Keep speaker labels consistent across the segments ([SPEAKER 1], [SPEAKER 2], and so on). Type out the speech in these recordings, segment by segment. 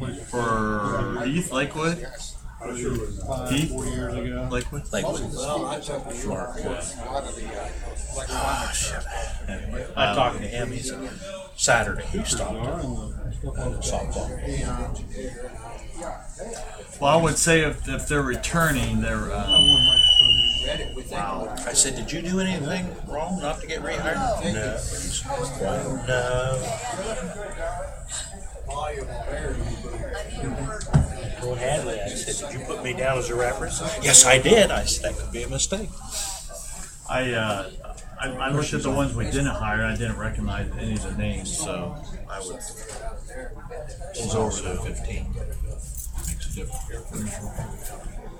[SPEAKER 1] For East Lakewood? East
[SPEAKER 2] four years ago.
[SPEAKER 1] Lakewood?
[SPEAKER 3] Like,
[SPEAKER 4] Well, I took New York. course, a lot of the, uh,
[SPEAKER 3] oh, shit. Anyway, I talked to him. He's Saturday. He stopped at the softball.
[SPEAKER 1] Well, I would say if, if they're returning, they're, um,
[SPEAKER 4] read it with that.
[SPEAKER 3] I said, "Did you do anything wrong not to get rehired?" No. Well, no.
[SPEAKER 4] volume of air.
[SPEAKER 5] Told Hadley, I said, did you put me down as a reference?
[SPEAKER 3] Yes, I did. I said that could be a mistake.
[SPEAKER 1] I, uh, I, I looked at the ones we didn't hire, and I didn't recognize any of the names, so I would.
[SPEAKER 3] It's over to fifteen. Makes a difference.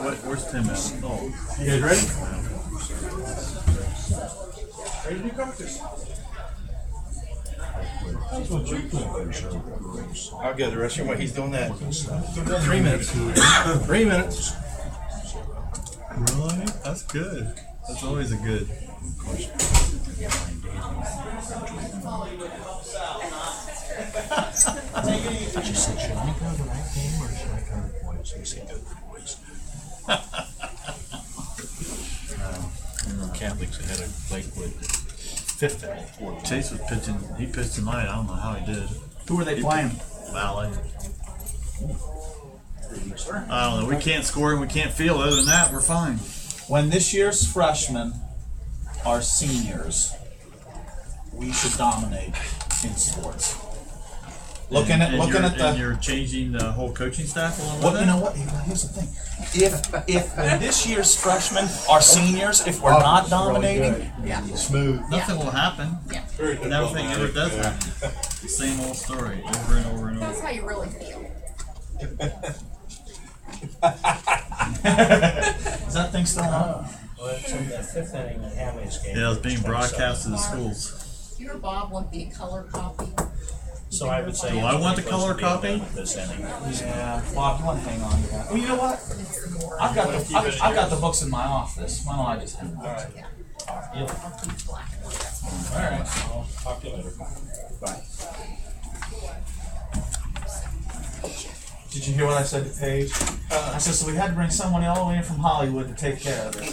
[SPEAKER 1] What, where's Tim at? Oh,
[SPEAKER 2] You guys ready? Ready to do coaches?
[SPEAKER 5] I'll get the rest of what he's doing that. Three minutes. Three minutes.
[SPEAKER 1] really? That's good. That's always a good.
[SPEAKER 3] She said, "Should I go to the right game or should I go to the boys?" He said, "Go to the boys." No, Catholics ahead of Lakewood, fifth out of four.
[SPEAKER 1] Chase was pitching, he pitched tonight, I don't know how he did.
[SPEAKER 2] Who are they playing?
[SPEAKER 1] Valley. I don't know, we can't score and we can't field, other than that, we're fine.
[SPEAKER 6] When this year's freshmen are seniors, we should dominate in sports. Looking at
[SPEAKER 1] And
[SPEAKER 6] looking
[SPEAKER 1] you're-
[SPEAKER 6] at the
[SPEAKER 1] And you're changing the whole coaching staff along with
[SPEAKER 6] Well, you know
[SPEAKER 1] that?
[SPEAKER 6] what? Here's the thing. If if when this year's freshmen are seniors, if we're
[SPEAKER 4] Oh,
[SPEAKER 6] not dominating,
[SPEAKER 5] Smooth.
[SPEAKER 1] Nothing will happen. And everything ever does happen. The Same old story, over and over and
[SPEAKER 7] That's
[SPEAKER 1] over.
[SPEAKER 7] how you really feel.
[SPEAKER 6] is that thing still on?
[SPEAKER 5] Well, it's in the fifth inning and how many games?
[SPEAKER 1] Yeah, it's being broadcast to the schools.
[SPEAKER 7] Your Bob would be a color copy.
[SPEAKER 5] So I would say.
[SPEAKER 1] Do I want the
[SPEAKER 5] it's
[SPEAKER 1] color
[SPEAKER 5] supposed to
[SPEAKER 1] copy?
[SPEAKER 5] be done This inning.
[SPEAKER 6] Yeah, Bob, you want to hang on to that? Well, you know what? I've got the I've, I've got the books in my office. Why don't I just hang on? All
[SPEAKER 7] Yeah.
[SPEAKER 6] right.
[SPEAKER 7] I'll keep black and white.
[SPEAKER 6] All right.
[SPEAKER 5] Talk to you later.
[SPEAKER 6] Did you hear what I said to Paige?
[SPEAKER 5] Uh-huh.
[SPEAKER 6] I said, so we had to bring someone all the way in from Hollywood to take care of this.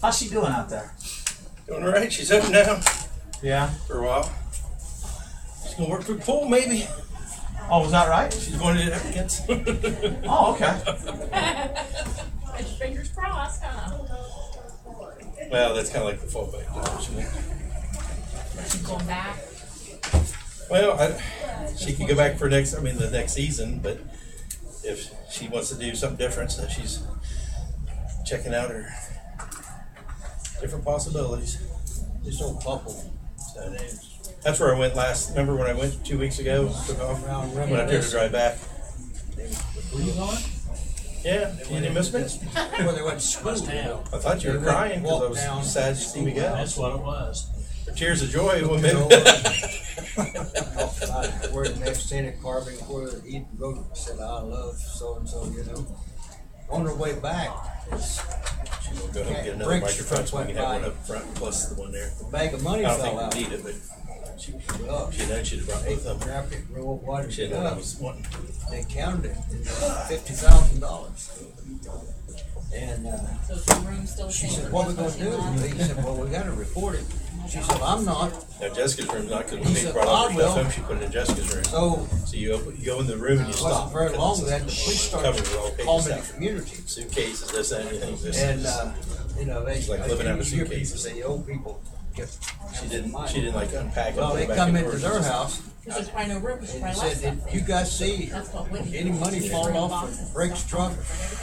[SPEAKER 6] How's she doing out there?
[SPEAKER 5] Doing all right. She's up now
[SPEAKER 6] Yeah.
[SPEAKER 5] for a while. She's gonna work through pool maybe.
[SPEAKER 6] Oh, was that right?
[SPEAKER 5] She's going to the applicants.
[SPEAKER 6] Oh, okay.
[SPEAKER 7] Fingers crossed, huh?
[SPEAKER 5] Well, that's kind of like the fallback. option.
[SPEAKER 7] She's going back.
[SPEAKER 5] Well, I, she could go back for next, I mean, the next season, but if she wants to do something different, so she's checking out her different possibilities.
[SPEAKER 4] This old bubble.
[SPEAKER 5] So that's where I went last. Remember when I went two weeks ago? Took off
[SPEAKER 4] Round
[SPEAKER 5] when I took
[SPEAKER 4] robin.
[SPEAKER 5] to drive back.
[SPEAKER 4] Were you on?
[SPEAKER 5] Yeah, you didn't miss me.
[SPEAKER 4] Well, they went to school. you know.
[SPEAKER 5] I thought you were
[SPEAKER 4] They went
[SPEAKER 5] crying
[SPEAKER 4] walked
[SPEAKER 5] because I
[SPEAKER 4] down
[SPEAKER 5] was sad to see me go.
[SPEAKER 4] That's
[SPEAKER 5] what it was. Tears of joy, woman.
[SPEAKER 4] Good old- I- We're next in at Carbon Quarter, Eden Road, said, I love so-and-so, you know. On her way back, it's
[SPEAKER 5] We'll go ahead and get another
[SPEAKER 4] Bricks
[SPEAKER 5] microphone so we can have one
[SPEAKER 4] went
[SPEAKER 5] up front plus the one there.
[SPEAKER 4] a bag of
[SPEAKER 5] I
[SPEAKER 4] money
[SPEAKER 5] don't
[SPEAKER 4] fell
[SPEAKER 5] think
[SPEAKER 4] out.
[SPEAKER 5] we need it, but she,
[SPEAKER 4] Well,
[SPEAKER 5] she knows she'd have brought both of them.
[SPEAKER 4] Wrapped it, rolled, watered
[SPEAKER 5] She
[SPEAKER 4] it
[SPEAKER 5] had one I
[SPEAKER 4] up.
[SPEAKER 5] was wanting.
[SPEAKER 4] They counted it, fifty thousand dollars. And, uh,
[SPEAKER 7] So is your room still
[SPEAKER 4] She
[SPEAKER 7] chamber
[SPEAKER 4] said, what we gonna do? And
[SPEAKER 7] closing?
[SPEAKER 4] He said, well, we gotta report it. She said, I'm not,
[SPEAKER 5] Now Jessica's room's not because
[SPEAKER 4] He
[SPEAKER 5] when they
[SPEAKER 4] said,
[SPEAKER 5] brought all
[SPEAKER 4] "I
[SPEAKER 5] her stuff
[SPEAKER 4] will."
[SPEAKER 5] home, she put it in Jessica's room. So
[SPEAKER 4] so
[SPEAKER 5] you open, you go in the room and you
[SPEAKER 4] it
[SPEAKER 5] stop.
[SPEAKER 4] wasn't very long
[SPEAKER 5] because
[SPEAKER 4] then, the police
[SPEAKER 5] it's
[SPEAKER 4] started
[SPEAKER 5] covered with all
[SPEAKER 4] calling
[SPEAKER 5] paper
[SPEAKER 4] the
[SPEAKER 5] stuff.
[SPEAKER 4] community.
[SPEAKER 5] Suitcases, this, that, and anything. This,
[SPEAKER 4] And, uh, you know, they,
[SPEAKER 5] It's like living out of a
[SPEAKER 4] your people,
[SPEAKER 5] suitcase.
[SPEAKER 4] say, old people get.
[SPEAKER 5] she didn't. She didn't like unpack. and
[SPEAKER 4] Well,
[SPEAKER 5] put
[SPEAKER 4] they
[SPEAKER 5] it back
[SPEAKER 4] come
[SPEAKER 5] the
[SPEAKER 4] into
[SPEAKER 5] drawer.
[SPEAKER 4] their house
[SPEAKER 7] Because there's probably no room, because she
[SPEAKER 4] and
[SPEAKER 7] probably
[SPEAKER 4] said,
[SPEAKER 7] left
[SPEAKER 4] did
[SPEAKER 7] something.
[SPEAKER 4] you guys see
[SPEAKER 7] That's what Whitney.
[SPEAKER 4] any money fall off from Rick's truck?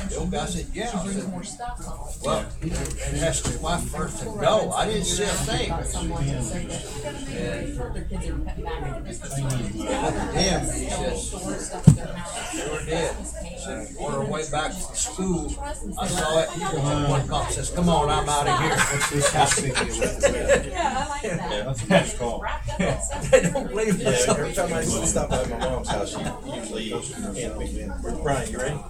[SPEAKER 4] The old guy said, yeah.
[SPEAKER 7] She
[SPEAKER 4] I
[SPEAKER 7] brings
[SPEAKER 4] said,
[SPEAKER 7] more stuff home.
[SPEAKER 4] Well, he said, and asked his wife first, and no, I didn't see a thing.
[SPEAKER 7] About someone that said that, "You heard their kids are cutting back on the business."
[SPEAKER 4] Damn, he says,
[SPEAKER 7] Store stuff in their house.
[SPEAKER 4] sure did. Said, on her way back from school, I saw it, and one cop says, come on, I'm out of here.
[SPEAKER 7] Yeah, I like that.
[SPEAKER 5] Yeah.
[SPEAKER 2] That's cool.
[SPEAKER 7] Wrapped up that stuff.
[SPEAKER 4] They don't leave
[SPEAKER 5] Yeah,
[SPEAKER 4] us.
[SPEAKER 5] every time I stop by my mom's house, she usually hands me. Brian, you ready?